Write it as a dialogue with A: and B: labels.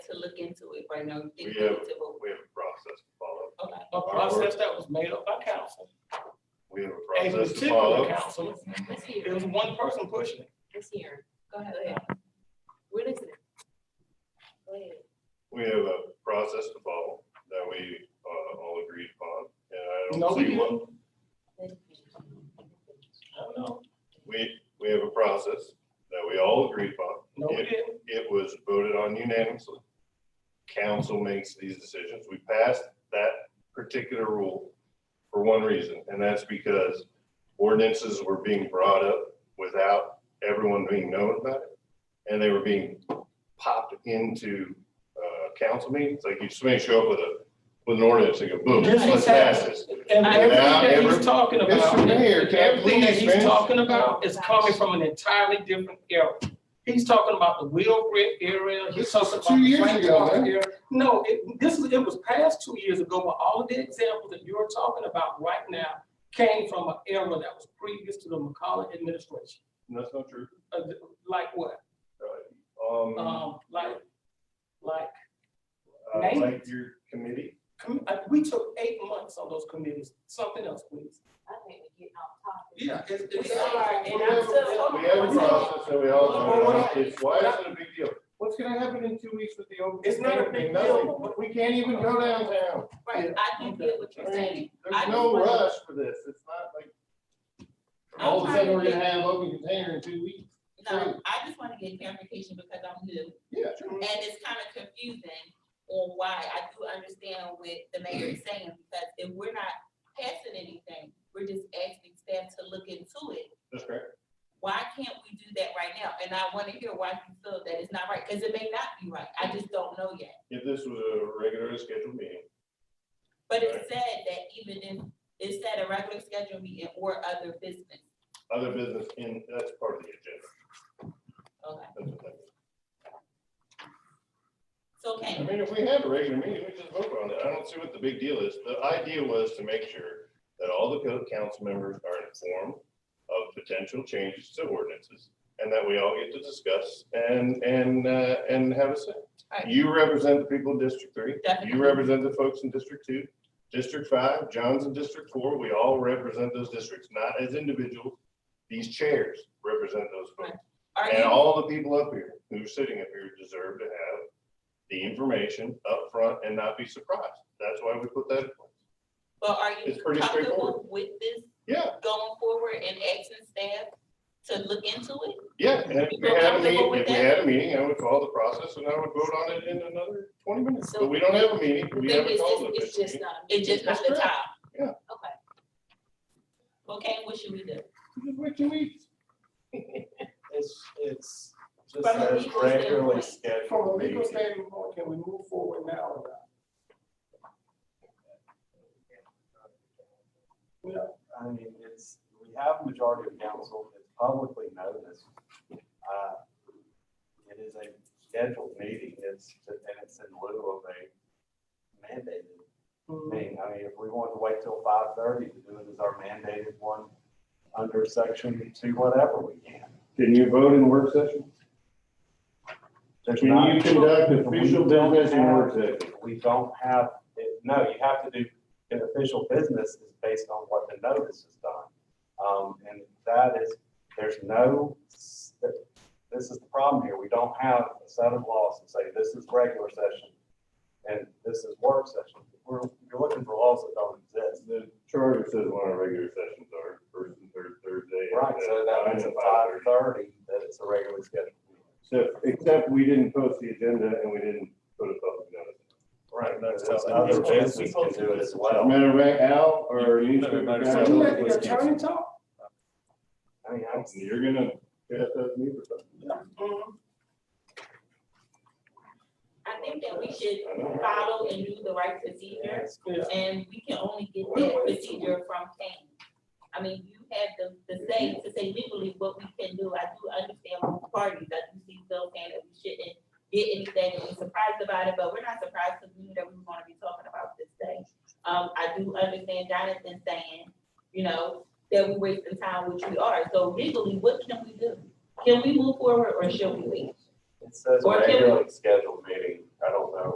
A: look into it right now.
B: We have, we have a process to follow.
A: Okay.
C: A process that was made up by council,
B: We have a
C: a
B: process to
C: particular
B: follow.
C: council,
B: Mhm.
A: Let's
C: it
A: hear,
C: was one person pushing it.
A: let's hear. Go ahead. We're listening. Go ahead.
B: We have a process to follow that we uh, all agreed upon. And I
C: No,
B: don't
C: we
B: see what,
C: didn't. I don't know.
B: we, we have a process that we all agreed upon.
C: No, we didn't.
B: It was voted on unanimously. Council makes these decisions. We passed that particular rule for one reason, and that's because ordinances were being brought up without everyone being known about it. And they were being popped into uh, council meetings. Like you just may show up with a, with an ordinance and go boom,
C: Just
B: let's pass this.
C: And
A: Without
C: everything that
B: ever-
C: he's talking about,
B: Mr. Mayor, can I
C: everything that
B: please
C: he's
B: finish?
C: talking about is coming from an entirely different era. He's talking about the Will Brick area, he's
B: This
C: talking
B: was
C: about.
B: two
C: the
B: years
C: Frank
B: ago,
C: Park
B: man.
C: area. No, it, this, was- it was past two years ago, but all of the examples that you're talking about right now came from an era that was previous to the McCollum administration.
B: And That's not true.
C: Uh, Like what?
B: Um,
C: Um, like, like,
B: uh,
C: name
B: like
C: it.
B: your committee,
C: com- uh, we took eight months on those committees, something else, please.
A: I think we get off topic.
C: Yeah. it's- it's-
A: We are, and
B: We
A: I'm still-
B: have a process that we all voted on. It's, why is it a big deal? What's gonna happen in two weeks with the open?
C: It's not a big
B: Nothing.
C: deal.
B: We can't even go downtown.
A: Right, I can get what
B: I
A: you're saying.
B: mean,
A: I
B: There's
A: just
B: no
A: wanna-
B: rush for this. It's not like. All of a sudden, we're gonna have open container in two weeks.
A: No, I just want to get clarification because I'm new.
B: Yeah.
A: And it's kind of confusing on why. I do understand what the mayor is saying, because if we're not passing anything, we're just asking staff to look into it.
B: That's correct.
A: Why can't we do that right now? And I want to hear why you feel that it's not right, because it may not be right. I just don't know yet.
B: If this was a regularly scheduled meeting,
A: But it said that even if, it said a regular schedule meeting or other business.
B: other business in, that's part of the agenda.
A: Okay,
B: That's what that is.
A: so can
B: I mean, if we have a regular meeting, we just vote on it. I don't see what the big deal is. The idea was to make sure that all the co- council members are informed of potential changes to ordinances and that we all get to discuss and, and, uh, and have a say.
A: Right.
B: You represent the people in District Three.
A: Definitely.
B: You represent the folks in District Two, District Five, John's in District Four. We all represent those districts, not as individuals. These chairs represent those folks.
A: Are
B: And
A: you,
B: all the people up here who are sitting up here deserve to have the information up front and not be surprised. That's why we put that in place.
A: but are
B: It's
A: you
B: pretty
A: comfortable
B: straightforward.
A: with this
B: Yeah,
A: going forward and asking staff to look into it?
B: yeah. and If we
A: You're
B: had a
A: comfortable
B: meeting,
A: with
B: if we
A: that?
B: had a meeting, I would follow the process and I would vote on it in another twenty minutes.
A: So-
B: But we don't have a meeting. We
A: Then
B: haven't
A: it's
B: called an
A: just, it's
B: official
A: just
B: meeting.
A: not, it's just not
B: That's
A: the
B: correct.
A: time?
B: Yeah.
A: Okay. Okay, what should we do?
B: Just wait two weeks.
D: It's, it's just
C: But
A: a
D: a
A: legal
D: regularly
A: standpoint.
C: From a
D: scheduled meeting.
C: legal standpoint, can we move forward now or not?
D: I mean, it's, we have a majority of council, it's publicly noticed. Uh, It is a scheduled meeting, it's, and it's in lieu of a mandated meeting. I mean, if we wanted to wait till five thirty to do it as our mandated one under section two, whatever, we can.
B: Can you vote in work session?
D: There's
B: Can you
D: not-
B: conduct
D: We
B: official
D: don't
B: business in work
D: have-
B: session?
D: We don't have, it- no, you have to do, an official business is based on what the notice is done. Um, and that is, there's no, s- this is the problem here. We don't have a set of laws that say this is regular session and this is work session. We're, you're looking for laws that don't exist.
B: The charter says when our regular sessions are, first and third Thursday.
D: Right, so that means at five thirty, that it's a regularly scheduled meeting.
B: So, except we didn't post the agenda and we didn't put a public notice.
D: Right,
B: no,
D: So
B: that's-
D: other business can do it as well.
B: Matter of fact, Al or
D: You- you
B: newspaper
D: know,
B: guy-
C: So you let the attorney talk?
D: I mean, I'm.
B: You're gonna pass that me for something.
C: Mm-hmm.
A: I think that we should
B: I know.
A: follow and do the right procedure,
C: Yeah.
A: and we can only get that procedure from Kane. I mean, you have the, the say to say legally what we can do. I do understand both parties. I do see Phil saying that we shouldn't get anything and be surprised about it, but we're not surprised because we knew that we were gonna be talking about this thing. Um, I do understand Jonathan saying, you know, that we wasting time, which we are. So legally, what can we do? Can we move forward or should we wait?
D: It says
A: Or can we-
D: regularly scheduled meeting. I don't